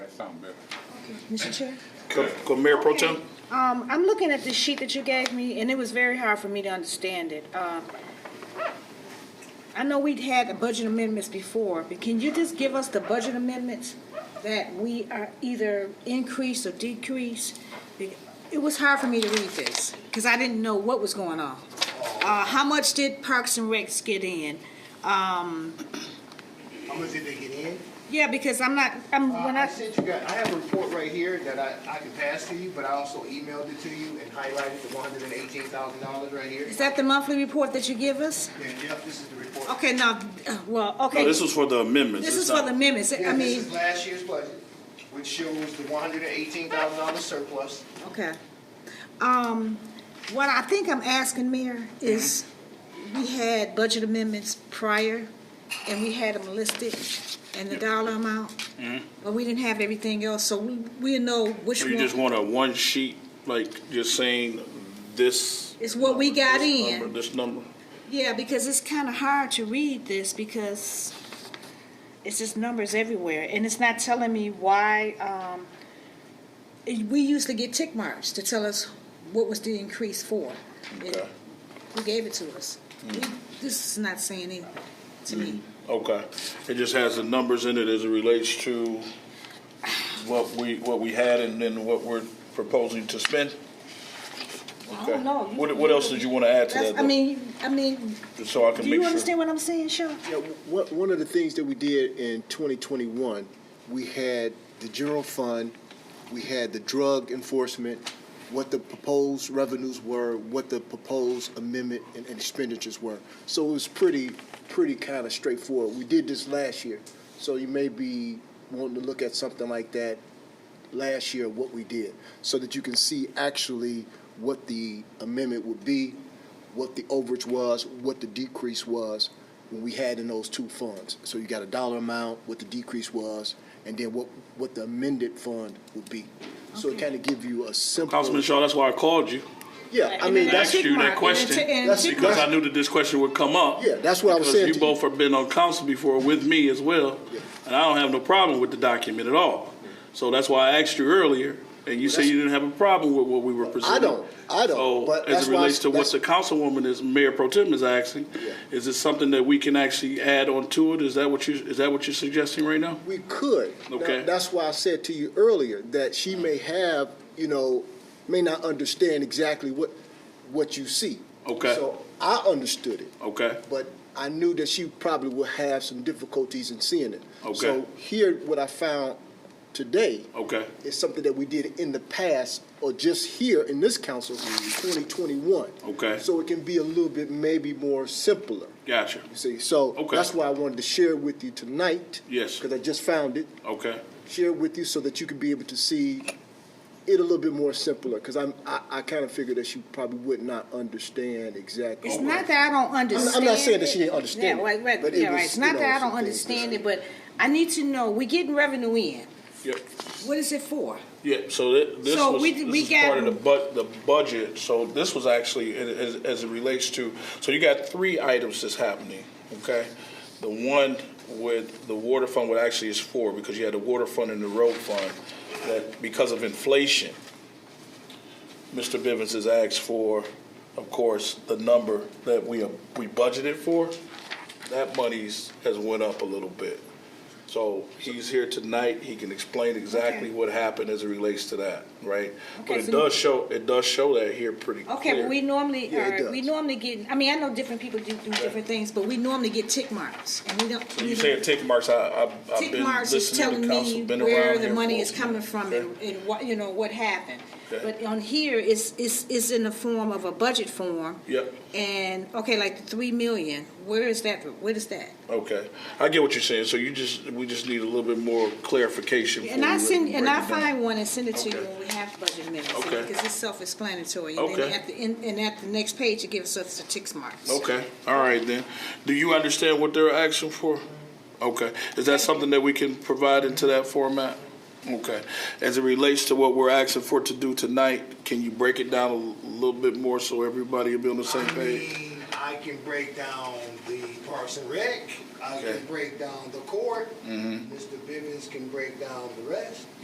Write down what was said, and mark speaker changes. Speaker 1: sound better.
Speaker 2: Mr. Chair?
Speaker 3: Co- co- Mayor Pro Tem?
Speaker 2: Um, I'm looking at the sheet that you gave me, and it was very hard for me to understand it. Um, I know we'd had the budget amendments before, but can you just give us the budget amendments that we are either increase or decrease? Be- It was hard for me to read this, because I didn't know what was going on. Uh, how much did Parks and Recs get in?
Speaker 4: How much did they get in?
Speaker 2: Yeah, because I'm not, I'm,
Speaker 4: Uh,
Speaker 2: when
Speaker 4: I
Speaker 2: I,
Speaker 4: sent you guys, I have a report right here that I, I can pass to you, but I also emailed it to you and highlighted the one hundred and eighteen thousand dollars right here.
Speaker 2: is that the monthly report that you give us?
Speaker 4: Yeah, yep, this is the report.
Speaker 2: Okay, now, uh, well, okay.
Speaker 3: No, this was for the amendments.
Speaker 2: This
Speaker 3: It's
Speaker 2: is for
Speaker 3: not-
Speaker 2: the amendments, I
Speaker 4: Yeah, This
Speaker 2: mean,
Speaker 4: is last year's budget, which shows the one hundred and eighteen thousand dollar surplus.
Speaker 2: okay. Um, what I think I'm asking, Mayor, is we had budget amendments prior, and we had them listed, and the dollar amount,
Speaker 3: Mm-hmm.
Speaker 2: but we didn't have everything else, so we, we know which
Speaker 3: So you just
Speaker 2: one
Speaker 3: want a one sheet, like you're saying this.
Speaker 2: is what we got
Speaker 3: this
Speaker 2: in.
Speaker 3: number, This number.
Speaker 2: Yeah, because it's kind of hard to read this because it's just numbers everywhere, and it's not telling me why. Um, it- we used to get tick marks to tell us what was the increase for. It-
Speaker 3: Okay. Mm.
Speaker 2: Who gave it to us? We- This is not saying anything to me.
Speaker 3: Okay. It just has the numbers in it as it relates to what we, what we had and then what we're proposing to spend.
Speaker 2: I
Speaker 3: Okay.
Speaker 2: don't know. You-
Speaker 3: What, what else did you want to add to
Speaker 2: That's-
Speaker 3: that?
Speaker 2: I mean, I mean,
Speaker 3: though? So I
Speaker 2: do
Speaker 3: can
Speaker 2: you
Speaker 3: make sure.
Speaker 2: understand what I'm saying, Sean?
Speaker 5: Yeah, one, one of the things that we did in 2021, we had the general fund, we had the drug enforcement, what the proposed revenues were, what the proposed amendment and and expenditures were. So it was pretty, pretty kind of straightforward. We did this last year, so you may be wanting to look at something like that last year, what we did, so that you can see actually what the amendment would be, what the overage was, what the decrease was when we had in those two funds. So you got a dollar amount, what the decrease was, and then what, what the amended fund would be. So it kind of give you a simple.
Speaker 3: Councilman Shaw, that's why I called you.
Speaker 5: Yeah, I
Speaker 2: And
Speaker 5: mean,
Speaker 2: then
Speaker 5: that's,
Speaker 3: Asked
Speaker 2: tick
Speaker 3: you
Speaker 2: mark,
Speaker 3: that
Speaker 2: and
Speaker 3: question.
Speaker 2: then tick- and
Speaker 5: That's
Speaker 2: tick
Speaker 3: Because
Speaker 2: mark.
Speaker 3: I knew that this question would come up.
Speaker 5: yeah, that's what I was
Speaker 3: Because
Speaker 5: saying
Speaker 3: you
Speaker 5: to you.
Speaker 3: both have been on council before with me as well, and I don't have no problem with the document at all. So that's why I asked you earlier, and you said you didn't have a problem with what we were presenting.
Speaker 5: don't. I don't.
Speaker 3: So
Speaker 5: But
Speaker 3: as
Speaker 5: that's
Speaker 3: it
Speaker 5: why I-
Speaker 3: relates to what
Speaker 5: that's-
Speaker 3: the councilwoman is, Mayor Pro Tem is asking,
Speaker 5: Yeah.
Speaker 3: is it something that we can actually add on to it? Is that what you, is that what you're suggesting right now?
Speaker 5: We could. Now,
Speaker 3: Okay.
Speaker 5: that's why I said to you earlier that she may have, you know, may not understand exactly what what you see.
Speaker 3: Okay.
Speaker 5: So I understood it,
Speaker 3: Okay,
Speaker 5: but I knew that she probably would have some difficulties in seeing it.
Speaker 3: Okay.
Speaker 5: So here, what I found today
Speaker 3: okay,
Speaker 5: is something that we did in the past, or just here in this council, 2021.
Speaker 3: Mm-hmm. Okay.
Speaker 5: So it can be a little bit maybe more simpler.
Speaker 3: gotcha,
Speaker 5: You see, so
Speaker 3: Okay.
Speaker 5: that's why I wanted to share with you tonight.
Speaker 3: Yes.
Speaker 5: Because I just found it
Speaker 3: okay,
Speaker 5: share it with you so that you can be able to see it a little bit more simpler, because I'm, I, I kind of figured that she probably would not understand exactly.
Speaker 2: It's not that I don't understand.
Speaker 5: Oh, I'm not saying that
Speaker 2: it.
Speaker 5: she didn't understand
Speaker 2: Yeah,
Speaker 5: it,
Speaker 2: right, right,
Speaker 5: but it
Speaker 2: yeah, right.
Speaker 5: was,
Speaker 2: It's
Speaker 5: you
Speaker 2: not
Speaker 5: know,
Speaker 2: that I don't
Speaker 5: some things that-
Speaker 2: understand it, but I need to know, we getting revenue in.
Speaker 3: yep.
Speaker 2: What is it for?
Speaker 3: Yeah, so that, this
Speaker 2: So
Speaker 3: was,
Speaker 2: we-
Speaker 3: this
Speaker 2: we
Speaker 3: is part of the
Speaker 2: got-
Speaker 3: bu, the budget, so this was actually, a- as, as it relates to, so you got three items that's happening, okay? The one with the water fund, what actually is four, because you had the water fund and the road fund, that because of inflation, Mr. Bivens has asked for, of course, the number that we, we budgeted for, that money's, has went up a little bit. So he's here tonight, he can explain
Speaker 2: Okay.
Speaker 3: exactly what happened as it relates to that, right? But
Speaker 2: Okay,
Speaker 3: it
Speaker 2: so-
Speaker 3: does show, it does show that here pretty clear.
Speaker 2: Okay, but we normally,
Speaker 5: Yeah, it
Speaker 2: are- we
Speaker 5: does.
Speaker 2: normally get, I mean, I know different people do, do different things, but we normally get tick marks, and we don't.
Speaker 3: When
Speaker 2: we
Speaker 3: you say
Speaker 2: don't-
Speaker 3: tick marks, I, I, I've
Speaker 2: Tick
Speaker 3: been
Speaker 2: marks is
Speaker 3: listening
Speaker 2: telling
Speaker 3: to
Speaker 2: me
Speaker 3: council, been around
Speaker 2: where the
Speaker 3: here
Speaker 2: money
Speaker 3: for-
Speaker 2: is coming from
Speaker 3: Okay.
Speaker 2: and, and what, you know, what happened.
Speaker 3: Okay.
Speaker 2: But on here, it's, it's, it's in the form of a budget form.
Speaker 3: Yep.
Speaker 2: And, okay, like the three million, where is that, what is that?
Speaker 3: Okay, I get what you're saying, so you just, we just need a little bit more clarification.
Speaker 2: And
Speaker 3: before
Speaker 2: I
Speaker 3: we
Speaker 2: send,
Speaker 3: break
Speaker 2: and
Speaker 3: it
Speaker 2: I
Speaker 3: down.
Speaker 2: find one and send it to you
Speaker 3: Okay.
Speaker 2: when we have budget minutes,
Speaker 3: Okay.
Speaker 2: because it's self-explanatory. And then
Speaker 3: Okay.
Speaker 2: at the, end- and at the next page, it gives us the tick marks.
Speaker 3: Okay, all right then. Do you understand what they're asking for? Okay, is that something that we can provide into that format? Okay, as it relates to what we're asking for to do tonight, can you break it down a little bit more so everybody will be on the same
Speaker 4: I
Speaker 3: page?
Speaker 4: mean, I can break down the Parks and Rec, I
Speaker 3: Okay. Mm-hmm.
Speaker 4: can break down the court, Mr. Bivens can break down the rest.